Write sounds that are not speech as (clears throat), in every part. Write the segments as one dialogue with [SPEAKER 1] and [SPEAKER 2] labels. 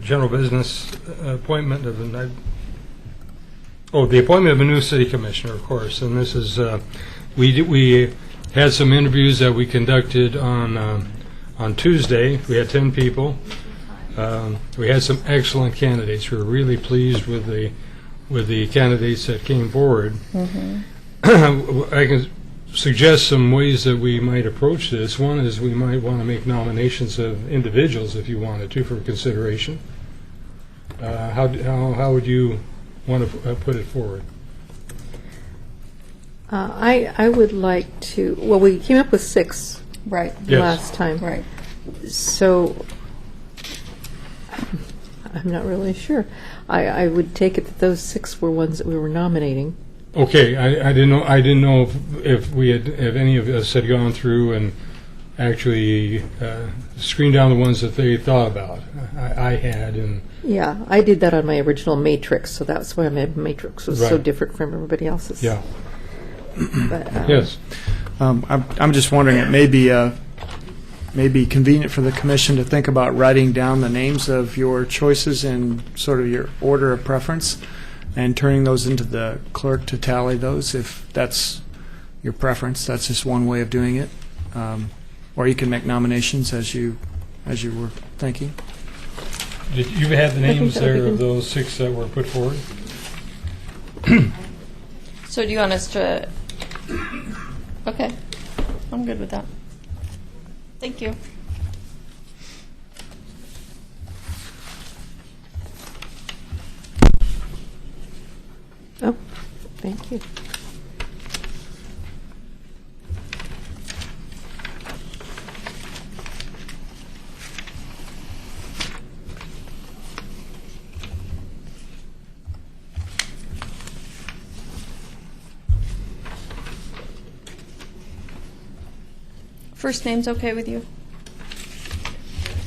[SPEAKER 1] general business uh, appointment of, an- I- oh, the appointment of a new city commissioner, of course, and this is, uh, we, d- we had some interviews that we conducted on, um, on Tuesday. We had 10 people. Um, We had some excellent candidates. We were really pleased with the, with the candidates that came forward. (clears throat) I can suggest some ways that we might approach this. One is we might want to make nominations of individuals if you wanted to for consideration. Uh, How, d- how how would you want to put it forward?
[SPEAKER 2] Uh, I, I would like to, well, we came up with six
[SPEAKER 3] Right,
[SPEAKER 1] Yes.
[SPEAKER 2] last time.
[SPEAKER 3] right.
[SPEAKER 2] So, I'm not really sure. I, I would take it that those six were ones that we were nominating.
[SPEAKER 1] Okay, I I didn't know, I didn't know if- if we had, if any of us had gone through and actually uh, screened down the ones that they thought about. I I had, and
[SPEAKER 2] Yeah, I did that on my original matrix, so that's why my matrix was so
[SPEAKER 1] Right.
[SPEAKER 2] different from everybody else's.
[SPEAKER 1] Yeah,
[SPEAKER 2] But, uh,
[SPEAKER 1] yes.
[SPEAKER 4] Um, I'm, I'm just wondering, it may be, uh, may be convenient for the commission to think about writing down the names of your choices in sort of your order of preference and turning those into the clerk to tally those if that's your preference. That's just one way of doing it. Um, or you can make nominations as you, as you were thinking.
[SPEAKER 1] Did you have the
[SPEAKER 2] I think
[SPEAKER 1] names
[SPEAKER 2] that would be
[SPEAKER 1] there of
[SPEAKER 2] good.
[SPEAKER 1] those six that were put forward?
[SPEAKER 3] So do you want us to, okay, I'm good with that. Thank you.
[SPEAKER 2] Oh, thank you.
[SPEAKER 3] First name's okay with you?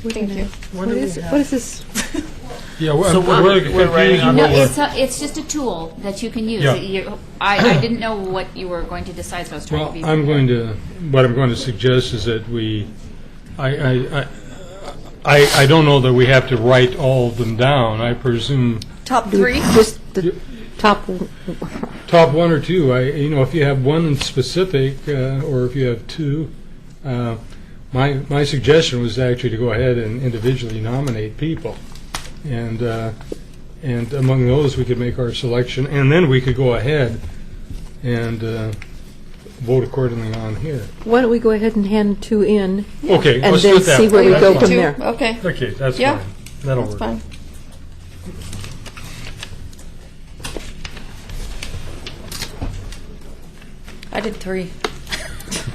[SPEAKER 2] We're
[SPEAKER 3] Thank
[SPEAKER 2] gonna-
[SPEAKER 3] you.
[SPEAKER 2] What is, it- what is this?
[SPEAKER 1] Yeah, we're,
[SPEAKER 5] So
[SPEAKER 1] we're,
[SPEAKER 5] we're-
[SPEAKER 1] really
[SPEAKER 5] we're writing
[SPEAKER 1] confusing
[SPEAKER 5] on
[SPEAKER 1] what
[SPEAKER 6] No,
[SPEAKER 5] Well,
[SPEAKER 6] it's, a, it's just a tool that you can use.
[SPEAKER 1] Yeah.
[SPEAKER 6] You-
[SPEAKER 1] (coughs)
[SPEAKER 6] I, I didn't know what you were going to decide, so I was trying to
[SPEAKER 1] Well,
[SPEAKER 6] be.
[SPEAKER 1] I'm going to, what I'm going to suggest is that we, I, I, I- I, I don't know that we have to write all of them down. I presume,
[SPEAKER 3] Top three?
[SPEAKER 2] Just the top, w-
[SPEAKER 1] top one or two, I, you know, if you have one in specific, uh, or if you have two, uh, my, my suggestion was actually to go ahead and individually nominate people. And, uh, and among those, we could make our selection, and then we could go ahead and uh, vote accordingly on here.
[SPEAKER 2] why don't we go ahead and hand two in?
[SPEAKER 1] Okay,
[SPEAKER 2] And
[SPEAKER 1] let's
[SPEAKER 2] then
[SPEAKER 1] do it that
[SPEAKER 2] see
[SPEAKER 1] way.
[SPEAKER 2] where we
[SPEAKER 1] That's
[SPEAKER 2] go
[SPEAKER 1] fine.
[SPEAKER 2] from there.
[SPEAKER 3] Two? Okay,
[SPEAKER 1] Okay, that's
[SPEAKER 3] Yeah.
[SPEAKER 1] fine. That'll
[SPEAKER 3] that's
[SPEAKER 1] work.
[SPEAKER 3] fine. I did three.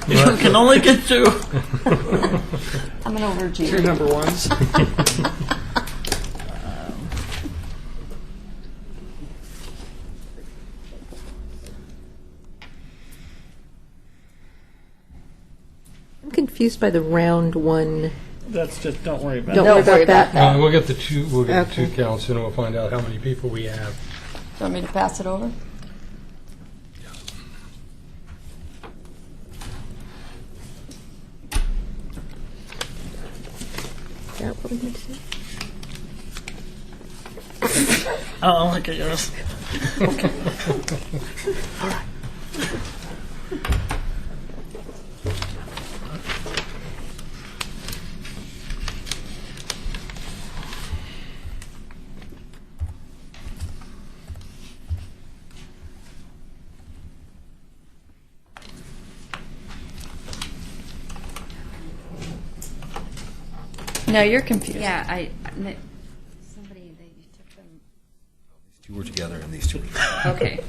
[SPEAKER 5] You can only get two.
[SPEAKER 3] I'm an
[SPEAKER 4] Your
[SPEAKER 3] overachieving.
[SPEAKER 4] number ones.
[SPEAKER 2] I'm confused by the round one.
[SPEAKER 5] That's just, don't worry about
[SPEAKER 2] Don't
[SPEAKER 5] it.
[SPEAKER 2] worry about
[SPEAKER 3] (laughs)
[SPEAKER 2] that.
[SPEAKER 1] Uh, we'll get the two, we'll get the two
[SPEAKER 2] Okay.
[SPEAKER 1] counts, and we'll find out how many people we have.
[SPEAKER 3] Do you want me to pass it over?
[SPEAKER 2] Is that what we need to do?
[SPEAKER 5] Oh, I'll look at yours.
[SPEAKER 3] No, you're confused.
[SPEAKER 6] Yeah, I. I- Somebody, they took them.
[SPEAKER 7] Two were together and these two
[SPEAKER 1] (laughs)
[SPEAKER 7] were.
[SPEAKER 6] Okay.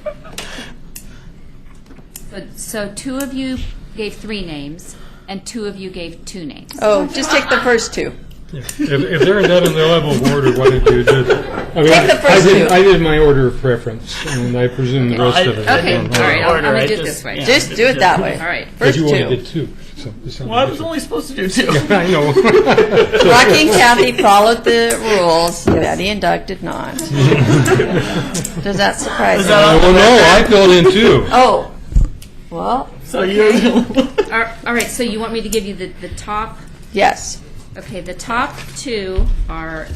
[SPEAKER 6] so, so two of you gave three names, and two of you gave two names.
[SPEAKER 3] Oh, just take the first two.
[SPEAKER 1] If, if they're in that in their level of order, why don't you just? I mean,
[SPEAKER 3] Take the
[SPEAKER 1] I-
[SPEAKER 3] first
[SPEAKER 1] I did,
[SPEAKER 3] two.
[SPEAKER 1] I did my order of preference, and I presume the rest of it. I
[SPEAKER 6] Okay,
[SPEAKER 1] don't know.
[SPEAKER 6] all right, I'll- I'm
[SPEAKER 5] Order,
[SPEAKER 6] gonna
[SPEAKER 5] I
[SPEAKER 6] do it
[SPEAKER 5] just-
[SPEAKER 6] this way.
[SPEAKER 5] yeah,
[SPEAKER 3] Just do it that way.
[SPEAKER 6] All right.
[SPEAKER 1] But
[SPEAKER 3] First
[SPEAKER 1] you only did
[SPEAKER 3] two.
[SPEAKER 1] two. so it's not-
[SPEAKER 5] Well, I was only supposed to do two.
[SPEAKER 1] I
[SPEAKER 5] (laughs)
[SPEAKER 1] know.
[SPEAKER 3] Rocky and Kathy followed the rules. Betty and Doug did not. Does that surprise
[SPEAKER 5] Is
[SPEAKER 3] you?
[SPEAKER 5] that all?
[SPEAKER 1] Well, no, I filled in two.
[SPEAKER 3] Oh, well,
[SPEAKER 5] So (laughs) you're.
[SPEAKER 6] All right, all right, so you want me to give you the, the top?
[SPEAKER 3] yes.
[SPEAKER 6] Okay, the top two are